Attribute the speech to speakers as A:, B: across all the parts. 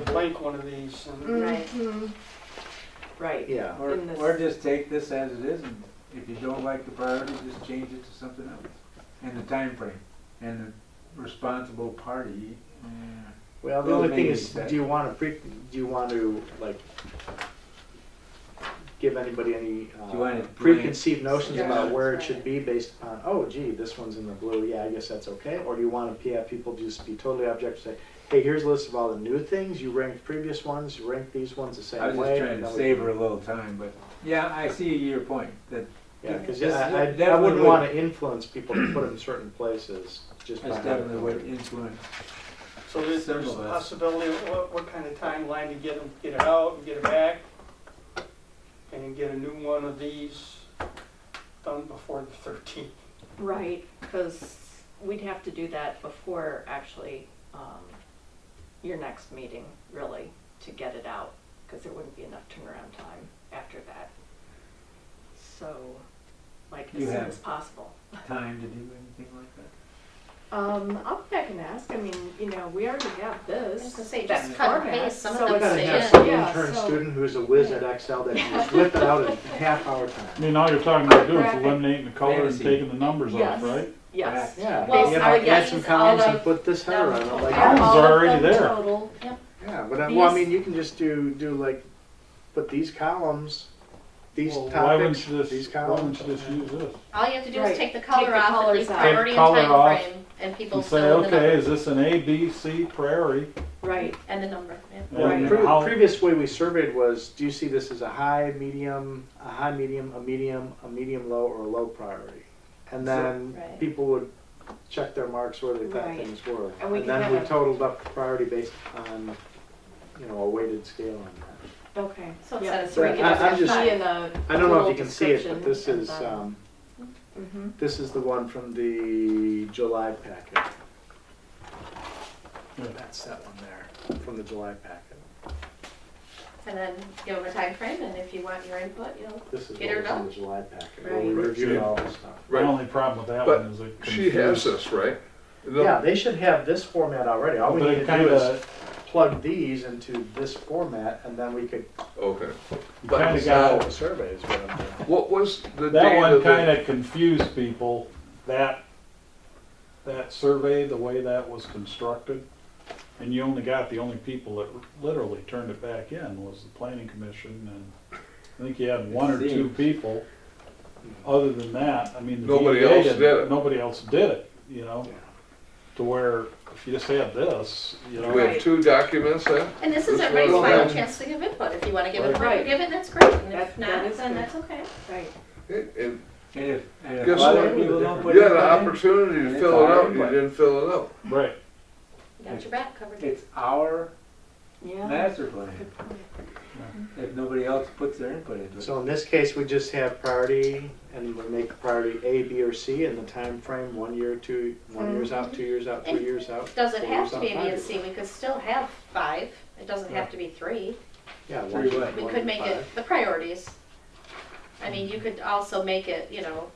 A: blank one of these. and-
B: Right.
C: Mhm.
B: Mm-hmm. Right.
D: Yeah.
E: Or,
B: In this-
E: or just take this as it is, and if you don't like the priority, just change it to something else. And the time frame and the responsible party. uh,
D: Well, the
E: Those
D: only
E: may
D: thing
E: be
D: is,
E: set.
D: do you want to pre, do you want to, like, give anybody any
E: Do you want
D: uh,
E: it
D: preconceived notions
B: Yeah.
D: about where it
C: Right.
D: should be based upon, oh gee, this one's in the blue, yeah, I guess that's okay? Or do you want to have people just be totally objective, say, hey, here's a list of all the new things, you ranked previous ones, you ranked these ones the same way?
E: I was just trying
D: and
E: to
D: then we-
E: savor a little time, but, yeah, I see your point, that
D: Yeah, because
E: This-
D: I, I- I
E: that
D: wouldn't
E: would-
D: want to influence people to put them in certain places just by.
E: that's
D: how they
E: definitely
D: come
E: what
D: through.
E: influence.
A: So there's there's a
E: Several of us.
A: possibility of what, what kind of timeline to get them, get it out and get it back. And then get a new one of these done before the thirteenth.
B: Right, because we'd have to do that before actually um, your next meeting, really, to get it out, because there wouldn't be enough turnaround time after that. So, like, as
E: You
B: soon
E: have-
B: as possible.
E: Time to do anything like that?
B: Um, I'll go back and ask, I mean, you know, we already have
C: I was
B: this.
C: gonna say,
B: that
C: just cut and
B: format,
C: paste some of
B: so
C: them
D: You
B: it's-
D: gotta
C: say
D: have
C: it.
D: some
B: yeah,
D: intern
B: so-
D: student who's a whiz at Excel that can just whip it out in half hour
F: I
D: time.
F: mean, all you're talking about doing is
B: Graphic.
F: eliminating the color and
E: Fantasy.
F: taking the numbers off,
B: Yes.
F: right?
B: Yes.
D: Yeah,
C: Well,
D: you know,
C: are
D: add some
C: these
D: columns
C: all
D: and
C: of
D: put this header on it,
C: them
D: like,
F: total?
D: yeah,
F: Columns are already there.
B: Total,
D: but, I- well, I
B: These-
D: mean, you can just do, do like, put these columns, these
F: Well, Why
D: topics,
F: wouldn't you
D: these
F: just, why wouldn't
D: columns.
F: you just use this?
C: All you have to do
B: Right.
C: is take the
B: Take
C: color
B: the
C: off, at
B: colors
C: least
B: out.
C: priority and
F: Color
C: time
F: off.
C: frame, and people
F: And say,
C: fill in the
F: okay,
C: number.
F: is this an A, B, C priority?
B: right,
C: And the number, yeah.
F: And
B: Right.
D: Pre-
F: how-
D: Previous way we surveyed was, do you see this as a high, medium, a high, medium, a medium, a medium, low, or a low priority? And then
C: Right.
D: people would check their marks where they thought
B: Right.
D: things were.
B: And we
D: And
B: can
D: then
B: have
D: we
B: a-
D: totaled up the priority based on, you know, a weighted scale on that.
B: okay.
C: So it's
B: yeah.
C: at a
D: three,
B: We
D: I-
B: can
D: I'm
B: just
D: just-
B: see in the
D: I don't know
B: little
D: if you can see it, but
B: description
D: this
B: and uh,
D: is,
B: then-
D: um,
B: Mhm.
D: this is the one from the July packet.
F: Yeah.
D: That's that one there, from the July packet.
C: And then give them a time frame, and if you want your input, you know,
D: This is
C: Get
D: what
C: her
D: was in
C: done.
D: the July packet, where we
B: Right.
D: reviewed all this stuff.
F: My
G: Right.
F: only problem with that
G: But
F: one is it
G: She has
F: confuses-
G: this, right? The-
D: Yeah, they should have this format already. All we
F: But
D: need
F: it
D: to do is
F: kinda,
D: plug these into this format, and then we could
G: Okay.
F: kinda
G: But
D: file
F: got,
D: the surveys. what I'm doing.
G: what was the
F: that
G: date
F: one
G: of the?
F: kinda confused people, that, that survey, the way that was constructed. And you only got, the only people that literally turned it back in was the planning commission and I think you had one or two
E: Seems. people
F: people. Other than that, I mean. the
G: Nobody
F: DEA
G: else
F: didn't-
G: did it.
F: Nobody else did it, you know?
D: Yeah.
F: to where if you just had this, you know,
G: We
B: Right.
G: have two documents then?
C: and this
G: This
C: is everybody's
G: one,
C: final
G: um,
C: chance to give input. If you wanna give it, you
B: Right.
C: give it, that's great, and
B: That-
C: if
B: that
C: not,
B: is
C: then
B: good.
C: that's okay.
B: Right,
G: And- and
E: And if, and if
G: Guess
E: other
G: what?
E: people don't put
G: You had an
E: it
G: opportunity
E: And
G: to
E: it's
G: fill it
E: our
G: out, you
E: input.
G: didn't fill it out.
F: right.
C: Got your back covered.
E: in, it's our
B: yeah.
E: master plan. If nobody else puts their input into it.
D: So in this case, we just have priority, and we make priority A, B, or C, and the time frame one year, two, one years out, two years out, three years out.
C: Does it
D: four
C: have
D: years
C: to
D: out,
C: be a B
D: five
C: and
D: years
C: C? We could still have five. It doesn't have to be three.
D: out. Yeah.
E: Three
D: one year,
E: what?
C: We
D: one
C: could
D: year,
C: make it
D: five.
C: the priorities. I mean, you could also make it, you know,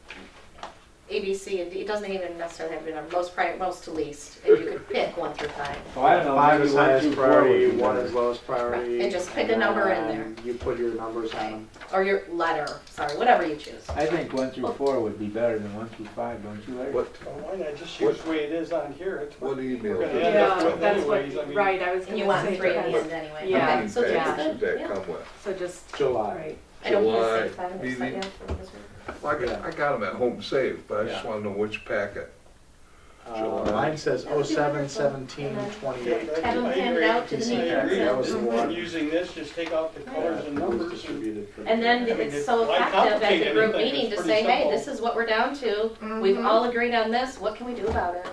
C: A, B, C, and D. It doesn't even necessarily have to be number, most prior, most to least. If you could pick one through five.
E: Oh, I don't know,
D: Five
E: maybe
D: is
E: one
D: highest
E: through four would
D: priority,
E: be
D: one
E: better.
D: is lowest priority.
C: And just pick a number in
D: then You put your numbers on them.
C: Or your letter, sorry, whatever you choose.
E: I think one through four would be better than one through five, don't you, Larry?
G: What,
A: Well, Why not just use the way it is on here? It's what
G: what email?
A: we're gonna
G: did-
A: end up
B: Yeah,
A: with
B: that's
A: anyways. I
B: what,
A: mean,
B: right, I was
C: And
B: gonna
C: you want
B: say
C: three at the
B: that.
C: end anyway.
G: How
B: Yeah.
G: many
C: So just
G: pages
C: good,
G: did that
C: yeah.
G: come with?
B: So just,
D: July.
B: right,
C: I don't want
G: July,
C: to say five, I just
G: BB.
C: like, yeah, just-
G: Well, I got, I got them at home saved, but I just
D: Yeah.
G: wanna know which packet.
D: Uh,
G: July.
D: mine says oh seven seventeen twenty-eight.
A: I- I
C: Have them handed
A: agree.
C: out to the
A: I
C: meeting.
A: agree.
D: That was the one.
A: Using this, just take out the colors and
D: It was
A: numbers and
D: distributed for-
C: And then
A: I mean,
C: it's
A: it's
C: so
A: like
C: effective at the
A: complicated
C: group
A: thing,
C: meeting
A: it's
C: to
A: pretty
C: say, hey,
A: simple.
C: this is what we're down to. We've all agreed on this, what can we do about it?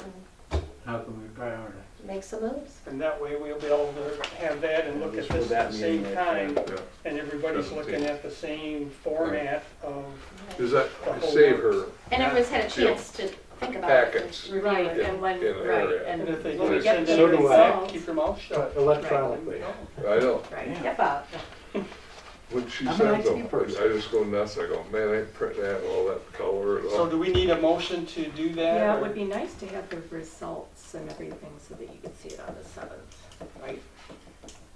C: And
E: How can we prioritize?
C: Make some moves.
A: And that way we'll be able to have that and look at this at the same time,
G: Yeah.
A: and everybody's looking at the same format of,
G: Does that save her?
C: And everyone's had a
G: Yeah.
C: chance to think about it.
G: Packets.
C: and review
B: right,
C: it.
B: and when,
G: in an
B: right,
G: area.
A: and
B: and
A: if they
B: when we
A: don't
B: get
A: send
B: the
D: So do I.
A: anything,
B: results,
A: keep your mouth
D: Uh,
A: shut.
D: Electronically.
G: I know.
C: Right,
B: Right.
C: yep, out.
G: When she
D: I'm an
G: sends
D: IT
G: them, I
D: person.
G: I just go nuts. I go, man, I print that, all that color and
A: So
G: all.
A: do we need a motion to do that?
B: yeah, it
A: or-
B: would be nice to have the results and everything so that you could see it on the seventh, right?